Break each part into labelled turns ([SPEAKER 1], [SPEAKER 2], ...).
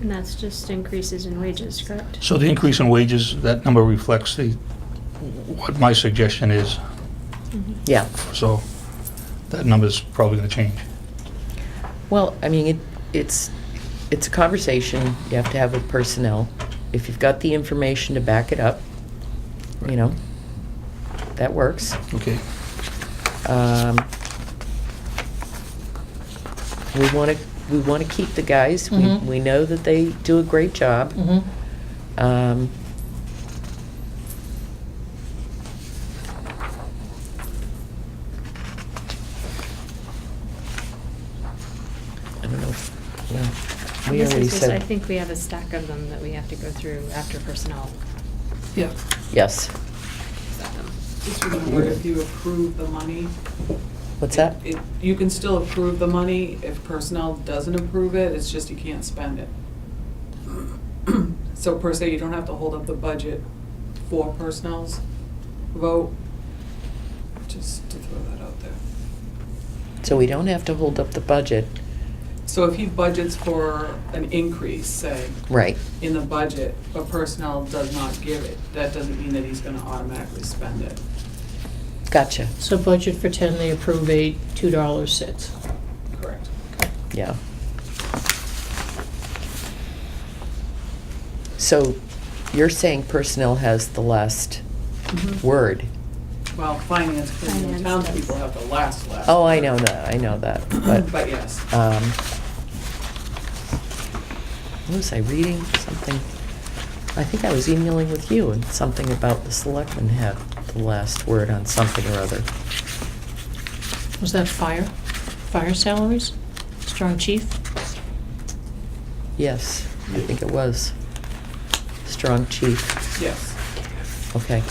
[SPEAKER 1] And that's just increases in wages, correct?
[SPEAKER 2] So the increase in wages, that number reflects the, what my suggestion is,
[SPEAKER 1] Mhm.
[SPEAKER 3] Yeah,
[SPEAKER 2] so that number's probably gonna change.
[SPEAKER 3] well, I mean, it, it's, it's a conversation you have to have with personnel. If you've got the information to back it up, you know, that works.
[SPEAKER 2] Okay,
[SPEAKER 3] Um, We want to, we want to keep the guys. We,
[SPEAKER 4] Mhm.
[SPEAKER 3] we know that they do a great job.
[SPEAKER 4] Mm-hmm.
[SPEAKER 3] Um, I don't know, if- well, we
[SPEAKER 1] This
[SPEAKER 3] already
[SPEAKER 1] is just, I
[SPEAKER 3] said,
[SPEAKER 1] think we have a stack of them that we have to go through after personnel.
[SPEAKER 5] Yeah.
[SPEAKER 3] yes,
[SPEAKER 5] Just remember, if you approve the money.
[SPEAKER 3] what's that?
[SPEAKER 5] it- You can still approve the money if personnel doesn't approve it, it's just you can't spend it. So per se, you don't have to hold up the budget for personnel's vote, just to throw that out there.
[SPEAKER 3] So we don't have to hold up the budget,
[SPEAKER 5] So if he budgets for an increase, say,
[SPEAKER 3] right,
[SPEAKER 5] in the budget, but personnel does not give it, that doesn't mean that he's gonna automatically spend it.
[SPEAKER 3] gotcha,
[SPEAKER 4] So budget for ten, they approve eight, two dollars sits.
[SPEAKER 5] Correct.
[SPEAKER 3] yeah. So you're saying personnel has the last Mm-hmm. word?
[SPEAKER 5] Well, finance, committee
[SPEAKER 1] Finance does.
[SPEAKER 5] and townspeople have the last, last.
[SPEAKER 3] Oh, I know that, I know that, but.
[SPEAKER 5] But yes.
[SPEAKER 3] Um, what was I reading? Something, I think I was emailing with you and something about the selectmen have the last word on something or other.
[SPEAKER 4] Was that fire? Fire salaries? Strong chief?
[SPEAKER 3] Yes, I think it was. Strong chief,
[SPEAKER 5] Yes.
[SPEAKER 3] okay.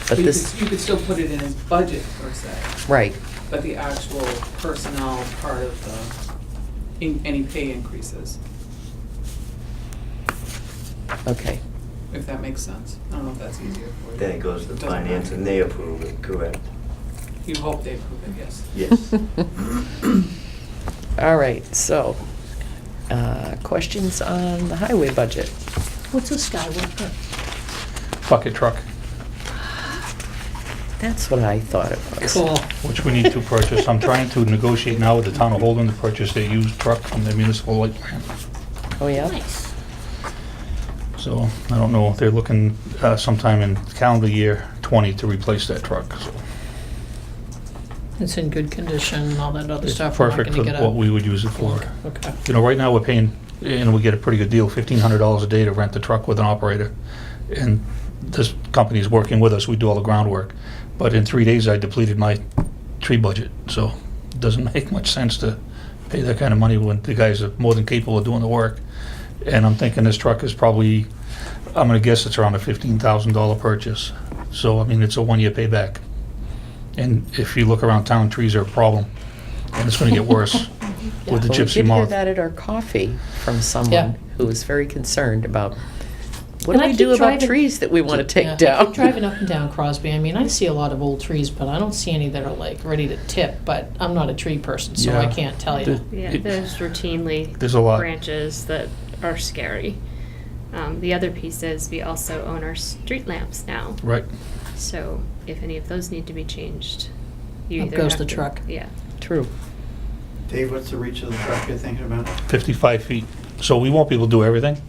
[SPEAKER 3] But
[SPEAKER 5] But you
[SPEAKER 3] this,
[SPEAKER 5] could, you could still put it in his budget per se,
[SPEAKER 3] right,
[SPEAKER 5] but the actual personnel part of the, in, any pay increases,
[SPEAKER 3] okay,
[SPEAKER 5] if that makes sense. I don't know if that's easier for you.
[SPEAKER 6] Then it goes to
[SPEAKER 5] Doesn't
[SPEAKER 6] finance
[SPEAKER 5] matter.
[SPEAKER 6] and they approve it, correct?
[SPEAKER 5] You hope they approve it, yes.
[SPEAKER 6] Yes.
[SPEAKER 3] all right, so, uh, questions on the highway budget?
[SPEAKER 4] What's a skywalker?
[SPEAKER 2] bucket truck,
[SPEAKER 3] That's what I thought it was.
[SPEAKER 4] Cool.
[SPEAKER 2] which we need to purchase. I'm trying to negotiate now with the town of Holden to purchase their used truck from the municipal light plant.
[SPEAKER 3] Oh, yeah?
[SPEAKER 4] Nice.
[SPEAKER 2] So I don't know, they're looking uh, sometime in calendar year 20 to replace that truck. so
[SPEAKER 4] It's in good condition and all that other
[SPEAKER 2] It's
[SPEAKER 4] stuff. We're not
[SPEAKER 2] perfect
[SPEAKER 4] gonna
[SPEAKER 2] for
[SPEAKER 4] get a-
[SPEAKER 2] what we would use it for.
[SPEAKER 4] Okay.
[SPEAKER 2] You know, right now, we're paying, and we get a pretty good deal, $1,500 a day to rent the truck with an operator. And this company's working with us, we do all the groundwork. But in three days, I depleted my tree budget, so it doesn't make much sense to pay that kind of money when the guys are more than capable of doing the work. And I'm thinking this truck is probably, I'm gonna guess it's around a $15,000 purchase. So, I mean, it's a one-year payback. And if you look around town, trees are a problem, and it's gonna get worse with the
[SPEAKER 3] Well,
[SPEAKER 2] gypsy
[SPEAKER 3] We did hear
[SPEAKER 2] moth.
[SPEAKER 3] that at our coffee from
[SPEAKER 4] Yeah.
[SPEAKER 3] someone who was very concerned about, what do
[SPEAKER 4] And I
[SPEAKER 3] we do
[SPEAKER 4] keep
[SPEAKER 3] about
[SPEAKER 4] driving-
[SPEAKER 3] trees that we want to
[SPEAKER 4] Yeah, I
[SPEAKER 3] take
[SPEAKER 4] keep
[SPEAKER 3] down?
[SPEAKER 4] Driving up and down Crosby, I mean, I see a lot of old trees, but I don't see any that are like ready to tip, but I'm not a tree person, so I
[SPEAKER 2] Yeah.
[SPEAKER 4] can't tell you.
[SPEAKER 2] The-
[SPEAKER 1] Yeah,
[SPEAKER 2] it-
[SPEAKER 1] there's routinely
[SPEAKER 2] There's a lot.
[SPEAKER 1] branches that are scary. Um, the other piece is we also own our street lamps now.
[SPEAKER 2] Right.
[SPEAKER 1] So if any of those need to be changed, you
[SPEAKER 4] Up
[SPEAKER 1] either
[SPEAKER 4] goes
[SPEAKER 1] have
[SPEAKER 4] the
[SPEAKER 1] to-
[SPEAKER 4] truck.
[SPEAKER 1] Yeah.
[SPEAKER 3] True.
[SPEAKER 6] Dave, what's the reach of the truck you're thinking about?
[SPEAKER 2] 55 feet. So we won't be able to do everything,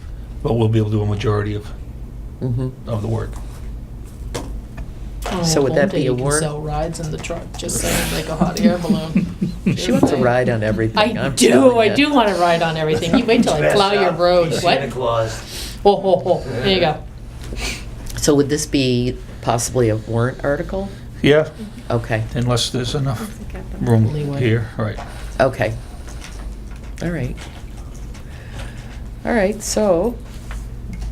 [SPEAKER 2] but we'll be able to do a majority of,
[SPEAKER 3] hmm
[SPEAKER 2] of the work.
[SPEAKER 4] On
[SPEAKER 3] So would
[SPEAKER 4] Old
[SPEAKER 3] that
[SPEAKER 4] Oh, Day,
[SPEAKER 3] be a
[SPEAKER 4] You can
[SPEAKER 3] war-
[SPEAKER 4] sell rides in the truck, just saying, like a hot air balloon.
[SPEAKER 3] She wants to ride on everything.
[SPEAKER 4] I
[SPEAKER 3] I'm
[SPEAKER 4] do,
[SPEAKER 3] telling
[SPEAKER 4] I
[SPEAKER 3] ya.
[SPEAKER 4] do want to ride on everything. You wait till I
[SPEAKER 6] Pass
[SPEAKER 4] plow your
[SPEAKER 6] out,
[SPEAKER 4] road.
[SPEAKER 6] be Santa
[SPEAKER 4] What?
[SPEAKER 6] Claus.
[SPEAKER 4] Ho, ho, ho. There you go.
[SPEAKER 3] So would this be possibly a warrant article?
[SPEAKER 2] Yeah,
[SPEAKER 3] Okay,
[SPEAKER 2] unless there's enough
[SPEAKER 1] Look at them.
[SPEAKER 2] room
[SPEAKER 4] Leeway.
[SPEAKER 2] here, right.
[SPEAKER 3] okay. All right. All right, so,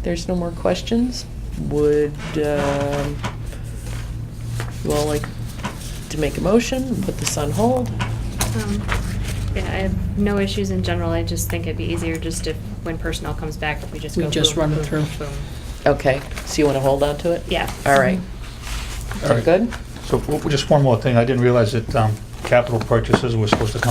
[SPEAKER 3] there's no more questions? Would, um, you all like to make a motion, and put this on hold?
[SPEAKER 1] Um, Yeah, I have no issues in general. I just think it'd be easier just if, when personnel comes back, if we just
[SPEAKER 4] We
[SPEAKER 1] go.
[SPEAKER 4] just
[SPEAKER 1] boom,
[SPEAKER 4] run it
[SPEAKER 1] boom,
[SPEAKER 4] through.
[SPEAKER 1] boom.
[SPEAKER 3] Okay, so you want to hold on to it?
[SPEAKER 1] Yeah.
[SPEAKER 3] All right.
[SPEAKER 2] All right.
[SPEAKER 3] Good?
[SPEAKER 2] So w- just one more thing. I didn't realize that um, capital purchases were supposed to come